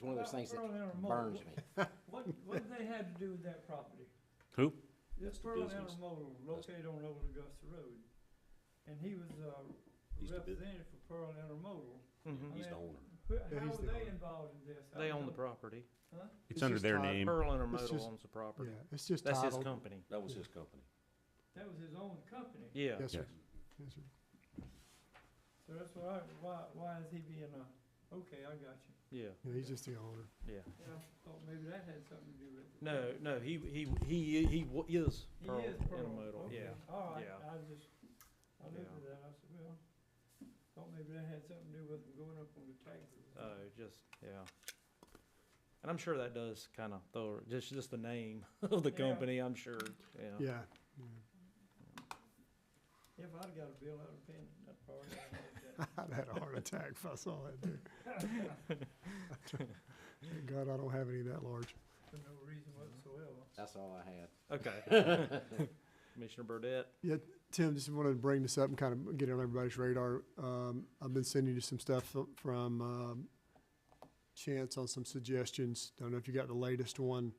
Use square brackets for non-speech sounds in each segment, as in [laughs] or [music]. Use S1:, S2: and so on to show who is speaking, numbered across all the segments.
S1: one of those things that
S2: Berlin or Mo-
S1: burns me.
S2: What, what did they have to do with that property?
S3: Who?
S2: This
S3: That's the
S2: Berlin
S3: business.
S2: Intermodal located on Old Augusta Road, and he was, uh,
S3: He's the bus-
S2: representative for Pearl Intermodal.
S4: Mhm.
S3: He's the owner.
S2: Who-
S4: Yeah,
S2: How
S4: he's
S2: are
S4: the
S2: they
S4: owner.
S2: involved in this? I
S4: They own the
S2: don't-
S4: property.
S2: Huh?
S3: It's
S4: It's
S3: under
S4: just
S3: their
S4: tied-
S3: name.
S4: Pearl It's Intermodal
S5: just-
S4: owns the
S5: Yeah,
S4: property.
S5: it's just
S4: That's his
S5: titled.
S4: company.
S3: That was his company.
S2: That was his own company.
S4: Yeah.
S5: Yes, sir.
S3: Yes.
S5: Yes, sir.
S2: So that's why, why, why is he being a, okay, I got you.
S4: Yeah.
S5: Yeah, he's just the owner.
S4: Yeah.
S2: And I thought maybe that had something to do with it.
S4: No, no, he, he, he, he w- is
S2: He
S4: Pearl
S2: is Pearl.
S4: Intermodal.
S2: Okay.
S4: Yeah.
S2: All right,
S4: yeah.
S2: I just, I looked
S4: Yeah.
S2: at that, I said, well, thought maybe that had something to do with him going up on the tax.
S4: Oh, just, yeah. And I'm sure that does kind of throw, just, just the name [laughs] of the
S2: Yeah.
S4: company, I'm sure, yeah.
S5: Yeah. yeah.
S2: If I'd got a bill, I'd have paid that part. I'd have
S5: I'd have [laughs] had a heart attack if I saw that dude. Thank God I don't have any that large.
S2: that For no reason whatsoever.
S1: That's all I had.
S4: Okay.
S5: [laughs]
S4: Commissioner Burdette,
S5: Tim, just wanted to bring this up and kind of get it on everybody's radar. Um, I've been sending you some stuff fro- from um, Chance on some suggestions. Don't know if you got the latest one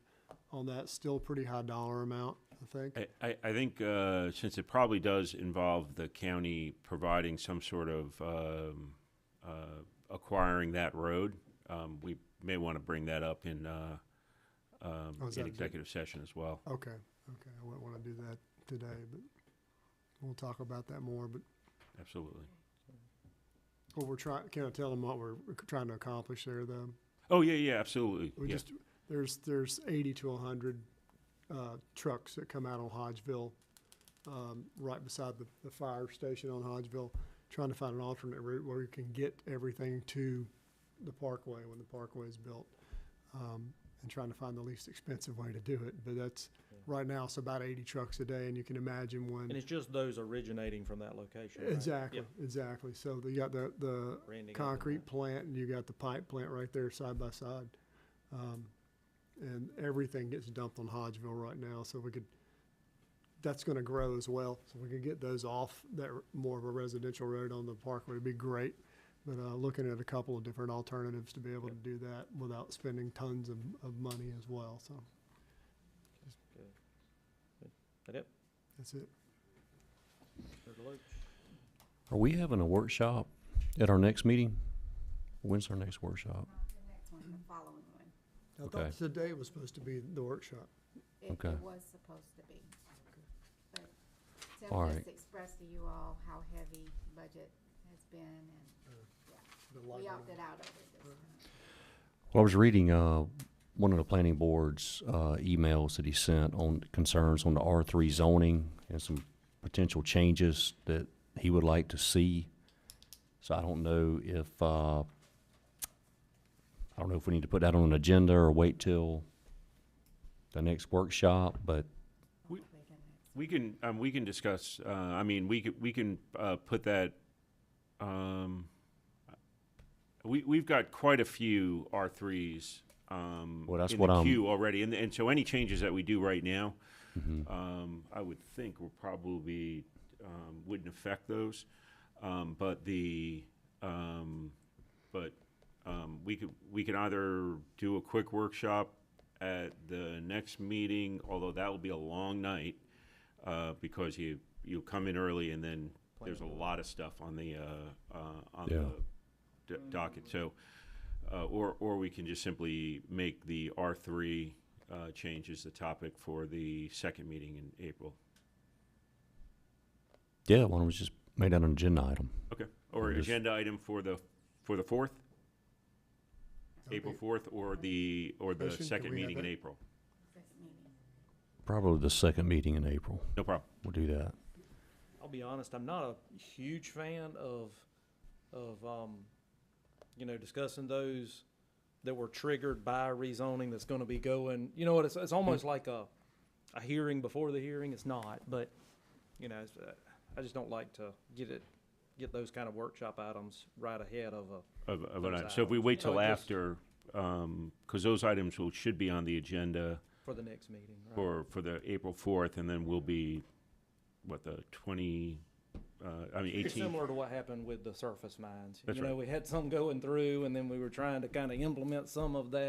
S5: on that. Still a pretty high dollar amount, I think.
S3: I, I, I think, uh, since it probably does involve the county providing some sort of, um, uh, acquiring that road, um, we may want to bring that up in, uh, um,
S5: Oh, is
S3: in
S5: that-
S3: executive session as well.
S5: Okay, okay. I wouldn't want to do that today, but we'll talk about that more. But
S3: Absolutely.
S5: what we're trying, can I tell them what we're trying to accomplish there, though?
S3: Oh, yeah, yeah, absolutely.
S5: We
S3: Yeah.
S5: just there's there's eighty to hundred uh, trucks that come out on Hodgeville, um, right beside the, the fire station on Hodgeville, trying to find an alternate route where we can get everything to the parkway when the parkway is built, um, and trying to find the least expensive way to do it. But that's
S4: Yeah.
S5: right now it's about eighty trucks a day, and you can imagine when
S4: and it's just those originating from that location, right?
S5: exactly
S4: Yep.
S5: exactly. So you got the the
S4: Randy got the
S5: concrete
S4: map.
S5: plant and you got the pipe plant right there side by side. Um, and everything gets dumped on Hodgeville right now, so we could, that's gonna grow as well. So we could get those off that r- more of a residential road on the parkway would be great. But, uh, looking at a couple of different alternatives to be able to do that without spending tons of, of money as well, so
S4: That it?
S5: that's it.
S4: Mr. Deloach?
S6: Are we having a workshop at our next meeting? When's our next workshop?
S7: The next one, the following one.
S5: I
S6: Okay.
S5: thought today was supposed to be the workshop.
S7: It,
S6: Okay.
S7: it was supposed to be. But Tim
S6: All right.
S7: just expressed to you all how heavy budget has been and
S5: the
S7: we
S5: light one.
S7: opted out of it this time.
S6: Well, I was reading, uh, one of the planning board's, uh, emails that he sent on concerns on the R three zoning and some potential changes that he would like to see. So I don't know if, uh, I don't know if we need to put that on an agenda or wait till the next workshop, but
S3: We-
S7: Hopefully the next
S3: We can, um, we can discuss, uh, I mean, we could, we can, uh, put that, um, we, we've got quite a few R threes, um,
S6: Well, that's
S3: in
S6: what
S3: the
S6: I'm-
S3: queue already, and, and so any changes that we do right now,
S6: mm-hmm.
S3: um, I would think will probably, um, wouldn't affect those. Um, but the, um, but, um, we could, we could either do a quick workshop at the next meeting, although that will be a long night, uh, because you, you come in early and then there's a lot of stuff on the, uh, uh, on
S6: Yeah.
S3: the d- docket, so, uh, or, or we can just simply make the R three, uh, change as the topic for the second meeting in April.
S6: yeah, why don't we just make that an agenda item?
S3: Okay, or
S6: And just-
S3: agenda item for the, for the fourth,
S5: That'd
S3: April
S5: be-
S3: fourth, or the, or the
S5: Motion, can
S3: second
S5: we have
S3: meeting in
S5: that?
S3: April.
S7: second meeting.
S6: Probably the second meeting in April.
S3: No problem.
S6: We'll do that.
S4: I'll be honest, I'm not a huge fan of, of, um, you know, discussing those that were triggered by rezoning that's gonna be going, you know what, it's, it's
S3: Mm-hmm.
S4: almost like a, a hearing before the hearing, it's not, but, you know, it's, uh, I just don't like to get it, get those kind of workshop items right ahead of a,
S3: Of, of
S4: Those
S3: an item. So if we wait
S4: So
S3: till
S4: it just-
S3: after, um 'cause because those items will, should be on the agenda
S4: for the next meeting, right?
S3: for, for the April fourth, and then we'll be, what, the twenty, uh, I mean,
S4: It's
S3: eighteen.
S4: Similar to what happened with the surface mines.
S3: That's
S4: You know,
S3: right.
S4: we had some going through and then we were trying to kind of implement some of that